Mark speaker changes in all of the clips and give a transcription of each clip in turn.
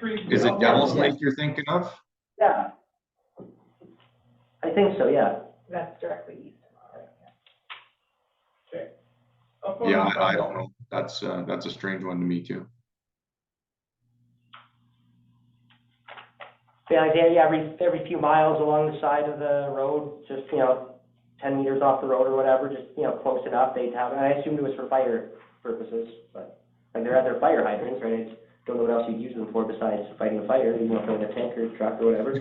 Speaker 1: Creek.
Speaker 2: Is it
Speaker 1: Railroad.
Speaker 2: Devil's Lake you're thinking of?
Speaker 3: Yeah. I think so, yeah.
Speaker 4: That's directly east of it.
Speaker 1: Up on
Speaker 2: Yeah,
Speaker 1: the-
Speaker 2: I I don't know. That's, uh, that's a strange one to me too.
Speaker 3: The idea, yeah, every, every few miles along the side of the road, just, you know, ten meters off the road or whatever, just, you know, close enough, they'd have, and I assumed it was for fire purposes, but, like, they're at their fire hydrants, right? I just Don't know what else you'd use them for besides fighting a fire, you know, for like a tank or truck or whatever.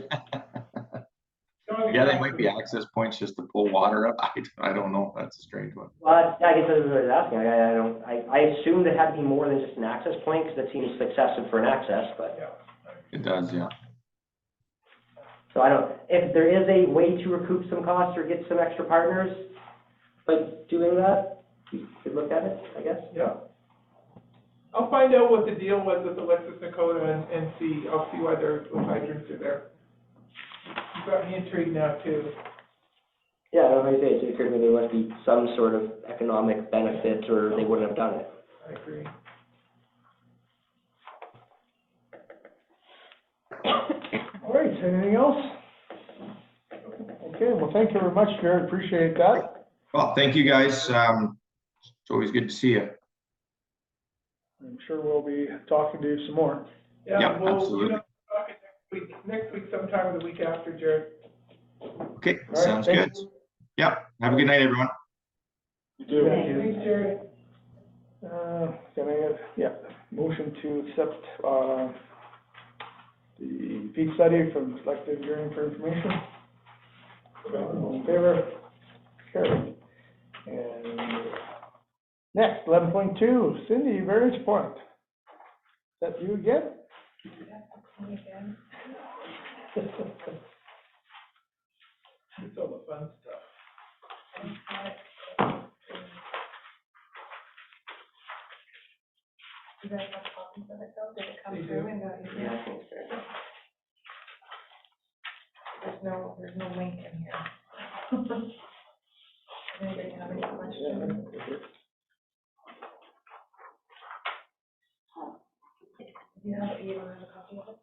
Speaker 2: Yeah, they might be access points just to pull water up. I, I don't know. That's a strange one.
Speaker 3: Well, I guess that's what I was asking, I, I don't, I, I assumed it had to be more than just an access point, because it seems excessive for an access, but.
Speaker 1: Yeah.
Speaker 2: It does, yeah.
Speaker 3: So I don't, if there is a way to recoup some costs or get some extra partners by doing that, we could look at it, I guess.
Speaker 1: Yeah. I'll find out what the deal was with Alexis Nakota and, and see, I'll see why their little hydrants are there. You got me intrigued now too.
Speaker 3: Yeah, I don't know, like I say, it occurred to me there must be some sort of economic benefit or they wouldn't have done it.
Speaker 1: I agree.
Speaker 5: All right, anything else? Okay, well, thank you very much, Jared, appreciate that.
Speaker 2: Well, thank you guys. Um, it's always good to see you.
Speaker 5: I'm sure we'll be talking to you some more.
Speaker 2: Yeah,
Speaker 1: Yeah, well, you
Speaker 2: absolutely.
Speaker 1: know, talk it next week, next week sometime or the week after, Jared.
Speaker 2: Okay,
Speaker 5: All right,
Speaker 2: sounds
Speaker 5: thank
Speaker 2: good. Yeah, have a good night, everyone.
Speaker 5: You do.
Speaker 4: Thank you.
Speaker 1: Thanks, Jared.
Speaker 5: Uh, can I, have- yeah, motion to accept, uh, the peak study from selective hearing for information. All in favor? Carried. And next, eleven point two, Cindy, variance point. Is that you again?
Speaker 1: It's all the fun stuff.
Speaker 4: You guys have copies of it though? Did
Speaker 1: They
Speaker 4: it come through
Speaker 1: do.
Speaker 4: and got you?
Speaker 3: Yeah, I think
Speaker 4: so. There's no, there's no link in here. Anybody have any questions? Do you have, you don't have a copy of it?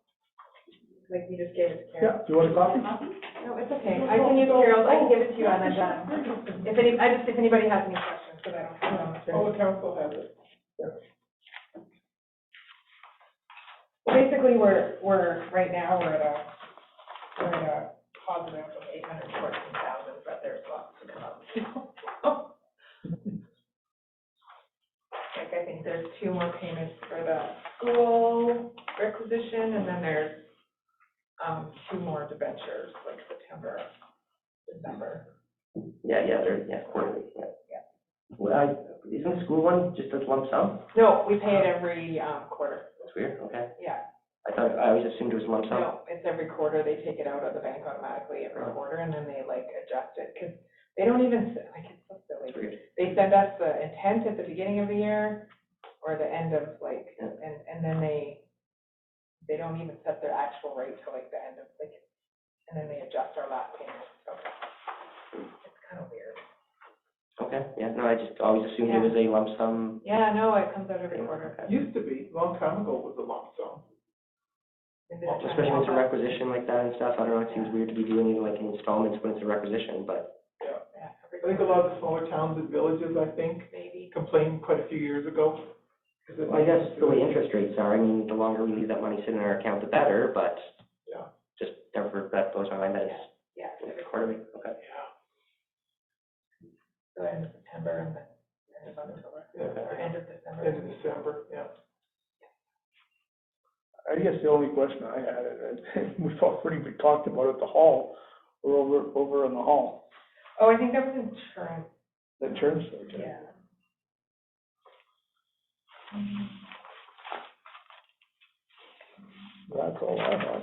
Speaker 4: Like you just gave it to Carol?
Speaker 5: Yeah, do you want a copy?
Speaker 4: No, it's okay. I can use Carol's, I can give it to you on that done. If any, I just, if anybody has any questions, because I don't have. them.
Speaker 1: All the council has it.
Speaker 4: Well, Basically, we're, we're, right now, we're at a, we're at a positive of eight hundred fourteen thousand, but there's lots to come up. still. Like, I think there's two more payments for the school requisition, and then there's, um, two more debentures, like September, December.
Speaker 3: Yeah, yeah, they're, yeah, quarterly, yeah. Well, I, isn't the school one just a lump sum?
Speaker 4: No, we pay it every, um, quarter,
Speaker 3: That's weird, okay.
Speaker 4: yeah.
Speaker 3: I thought, I always assumed it was lump sum.
Speaker 4: No, it's every quarter, they take it out of the bank automatically every
Speaker 3: Oh.
Speaker 4: quarter, and then they like adjust it, because they don't even, s- like, it's so
Speaker 3: That's
Speaker 4: silly.
Speaker 3: weird.
Speaker 4: They send us the intent at the beginning of the year, or the end of like,
Speaker 3: Yeah.
Speaker 4: and, and then they, they don't even set their actual rate till like the end of, like, and then they adjust our last payment, so it's kind of weird.
Speaker 3: Okay, yeah, no, I just always assumed it was a lump sum.
Speaker 4: Yeah, no, it comes out every quarter.
Speaker 1: Used to be, long time ago was a lump sum.
Speaker 4: Is it a time
Speaker 3: Especially when it's a
Speaker 4: lapse?
Speaker 3: requisition like that and stuff, I don't know, it seems weird to be doing like installments when it's a requisition, but
Speaker 4: Yeah, every
Speaker 1: I think a lot of the smaller towns and villages, I think,
Speaker 4: Maybe.
Speaker 1: complained quite a few years ago. 'cause it-
Speaker 3: Well, I guess the way interest rates are, I mean, the longer we leave that money sitting in our account, the better, but
Speaker 1: Yeah.
Speaker 3: just never, that blows my mind, that is
Speaker 4: Yeah, it's every
Speaker 3: quarterly, okay.
Speaker 4: So end of September and then end of October, or
Speaker 1: Yeah,
Speaker 4: end of December.
Speaker 1: End of December, yeah.
Speaker 5: I guess the only question I had, and we've already been talked about at the hall, or over, over in the hall,
Speaker 4: Oh, I think that was insurance,
Speaker 5: the terms.
Speaker 4: yeah.
Speaker 5: That's all I have.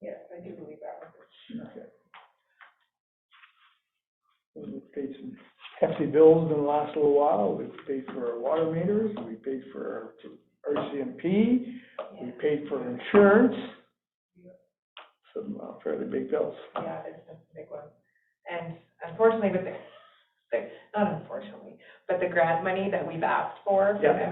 Speaker 4: Yes, I do believe that was insurance.
Speaker 5: Okay. We've paid some hefty bills in the last little while. We've paid for our water meters, we paid for our RCMP, we paid for insurance. Some uh, fairly big bills.
Speaker 4: Yeah, there's some big ones. And unfortunately, with the, the- not unfortunately, but the grant money that we've asked for, for
Speaker 5: Yeah.
Speaker 4: the